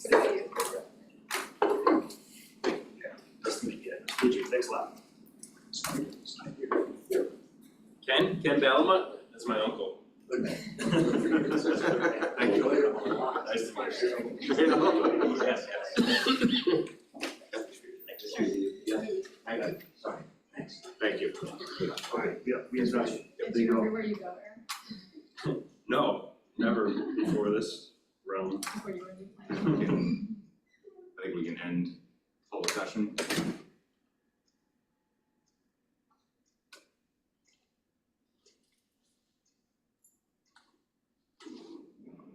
six left. Ken, Ken Ballamut, that's my uncle. Thank you. Nice to meet you. Yes, yes. Thank you. Okay, yeah, we addressed. Did you remember where you go, Aaron, No, never before this realm. before you were in the I think we can end full session.